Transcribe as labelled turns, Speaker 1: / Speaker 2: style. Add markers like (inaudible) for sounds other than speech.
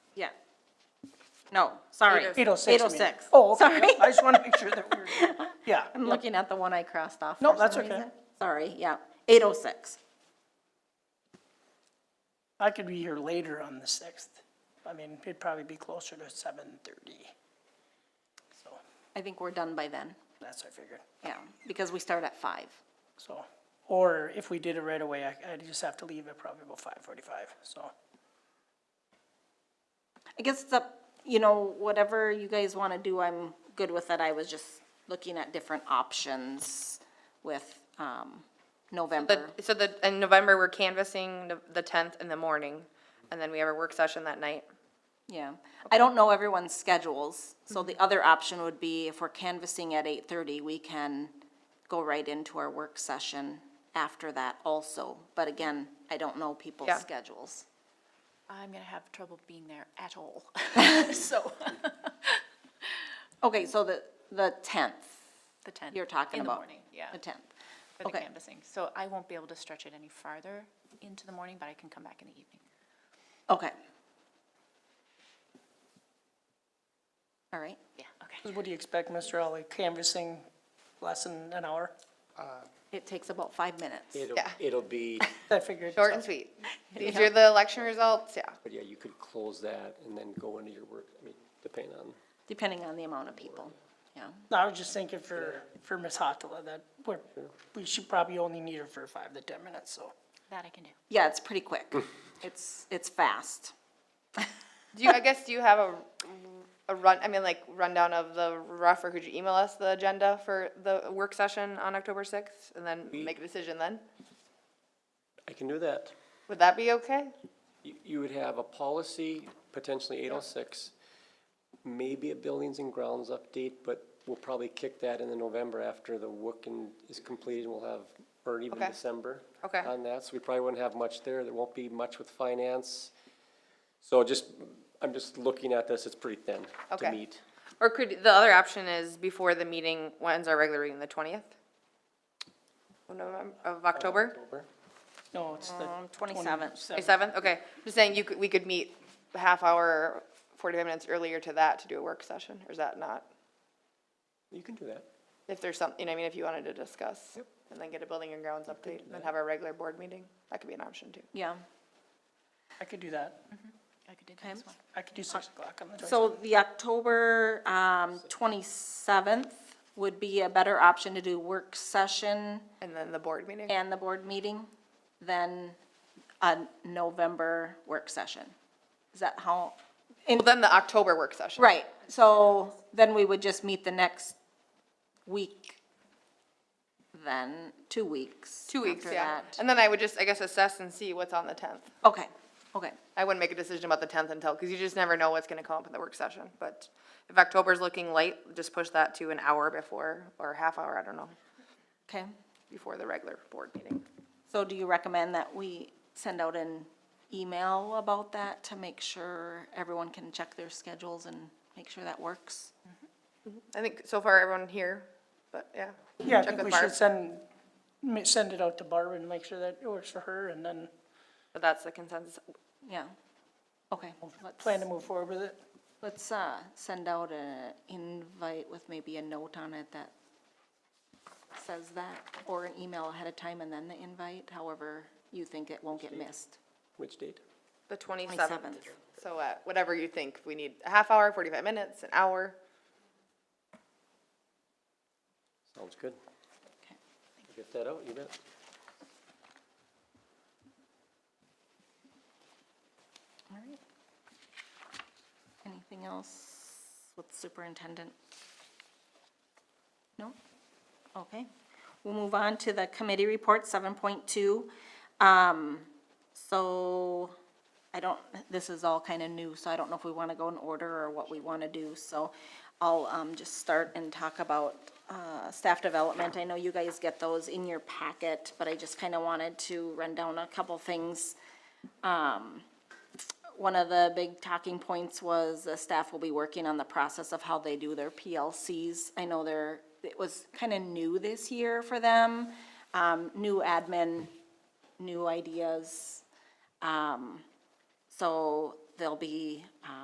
Speaker 1: Yeah. No, sorry.
Speaker 2: 806, you mean.
Speaker 1: 806.
Speaker 2: Oh, okay.
Speaker 1: Sorry.
Speaker 2: Yep, I just want to make sure that we're, yeah.
Speaker 1: I'm looking at the one I crossed off.
Speaker 2: No,
Speaker 1: for
Speaker 2: that's
Speaker 1: some
Speaker 2: okay.
Speaker 1: reason. Sorry, yeah, 806.
Speaker 2: I could be here later on the 6th. I mean, it'd probably be closer to 7:30. So
Speaker 1: I think we're done by then,
Speaker 2: that's what I figured.
Speaker 1: yeah, because we start at 5.
Speaker 2: So, or if we did it right away, I- I'd just have to leave at probably about 5:45, so.
Speaker 1: I guess it's up, you know, whatever you guys want to do, I'm good with it. I was just looking at different options with um, November.
Speaker 3: But, so the, in November, we're canvassing the- the tenth in the morning, and then we have a work session that night.
Speaker 1: Yeah, I don't know everyone's schedules, so the other option would be if we're canvassing at eight-thirty, we can go right into our work session after that also, but again, I don't know
Speaker 3: Yeah.
Speaker 1: people's schedules.
Speaker 4: I'm gonna have trouble being there at (laughs) all, so,
Speaker 1: Okay, so the, the tenth
Speaker 4: the 10th.
Speaker 1: you're talking
Speaker 4: In the
Speaker 1: about?
Speaker 4: morning, yeah,
Speaker 1: The tenth,
Speaker 4: for the
Speaker 1: okay.
Speaker 4: canvassing. So I won't be able to stretch it any farther into the morning, but I can come back in the evening.
Speaker 1: okay. All right,
Speaker 4: Yeah, okay.
Speaker 2: What do you expect, Mr. Ali? Canvassing less than an hour?
Speaker 1: it takes about five minutes.
Speaker 5: It'll,
Speaker 3: Yeah. (laughs)
Speaker 5: it'll be,
Speaker 2: I figured.
Speaker 3: Short and (laughs) sweet. These are the election results, yeah.
Speaker 5: but yeah, you could close that and then go into your work, I mean, depending on,
Speaker 1: Depending on the amount of people, yeah.
Speaker 2: No, I was just thinking for, for Ms. Hotela, that we're, we should probably only need her for five to 10 minutes, so.
Speaker 4: That I can do.
Speaker 1: Yeah, it's pretty quick. It's, it's fast.
Speaker 3: Do you, I guess, do you have a, a run, I mean, like rundown of the rough, or could you email us the agenda for the work session on October sixth? And then make a decision then?
Speaker 5: I can do that.
Speaker 3: Would that be okay?
Speaker 5: You, you would have a policy, potentially eight oh six, maybe a buildings and grounds update, but we'll probably kick that in the November after the work and is completed, we'll have, or even
Speaker 3: Okay.
Speaker 5: December.
Speaker 3: Okay.
Speaker 5: On that, so we probably wouldn't have much there, there won't be much with finance. So just, I'm just looking at this, it's pretty thin
Speaker 3: Okay.
Speaker 5: to meet.
Speaker 3: Or could, the other option is before the meeting, when's our regular meeting, the twentieth? Of November, of October?
Speaker 5: Over.
Speaker 2: No, it's the.
Speaker 1: Um, 27th.
Speaker 3: 27th, okay. Just saying, you could, we could meet a half hour, 45 minutes earlier to that to do a work session, or is that not?
Speaker 5: You can do that.
Speaker 3: If there's something, you know, I mean, if you wanted to discuss, and then get a building and grounds update, and then have our regular board meeting, that could be an option too.
Speaker 1: Yeah.
Speaker 2: I could do that.
Speaker 4: I could do that as
Speaker 1: Okay.
Speaker 4: well.
Speaker 2: I could do six o'clock on the twenty-seventh.
Speaker 1: So the October um, 27th would be a better option to do work session
Speaker 3: And then the board meeting.
Speaker 1: and the board meeting than a November work session. Is that how?
Speaker 3: Well, Then the October work session.
Speaker 1: Right, so then we would just meet the next week then, two weeks.
Speaker 3: Two weeks,
Speaker 1: after
Speaker 3: yeah.
Speaker 1: that.
Speaker 3: And then I would just, I guess, assess and see what's on the 10th.
Speaker 1: Okay, okay.
Speaker 3: I wouldn't make a decision about the 10th until, because you just never know what's going to come up in the work session. But if October's looking light, just push that to an hour before, or a half hour, I don't know,
Speaker 1: Okay,
Speaker 3: before the regular board meeting.
Speaker 1: so do you recommend that we send out an email about that to make sure everyone can check their schedules and make sure that works?
Speaker 3: I think so far everyone here, but yeah.
Speaker 2: Yeah, I
Speaker 3: Check
Speaker 2: think
Speaker 3: with
Speaker 2: we
Speaker 3: Barb.
Speaker 2: should send, ma- send it out to Barb and make sure that it works for her and then
Speaker 3: But that's the consensus.
Speaker 1: Yeah, okay. let's-
Speaker 2: plan to move forward with it.
Speaker 1: Let's, uh, send out an invite with maybe a note on it that says that, or an email ahead of time and then the invite, however you think it won't get missed.
Speaker 5: Which date?
Speaker 3: The twenty-seventh.
Speaker 1: 27th.
Speaker 3: So, uh, whatever you think, we need a half hour, forty-five minutes, an hour.
Speaker 5: Sounds good.
Speaker 1: Okay.
Speaker 5: Get that out, you bet.
Speaker 1: All right. Anything else with superintendent? No? Okay. We'll move on to the committee report, seven point two. Um, so I don't, this is all kind of new, so I don't know if we want to go in order or what we want to do. So I'll, um, just start and talk about, uh, staff development. I know you guys get those in your packet, but I just kind of wanted to run down a couple things one of the big talking points was the staff will be working on the process of how they do their PLCs. I know they're, it was kind of new this year for them, um, new admin, new ideas. Um, so they'll be,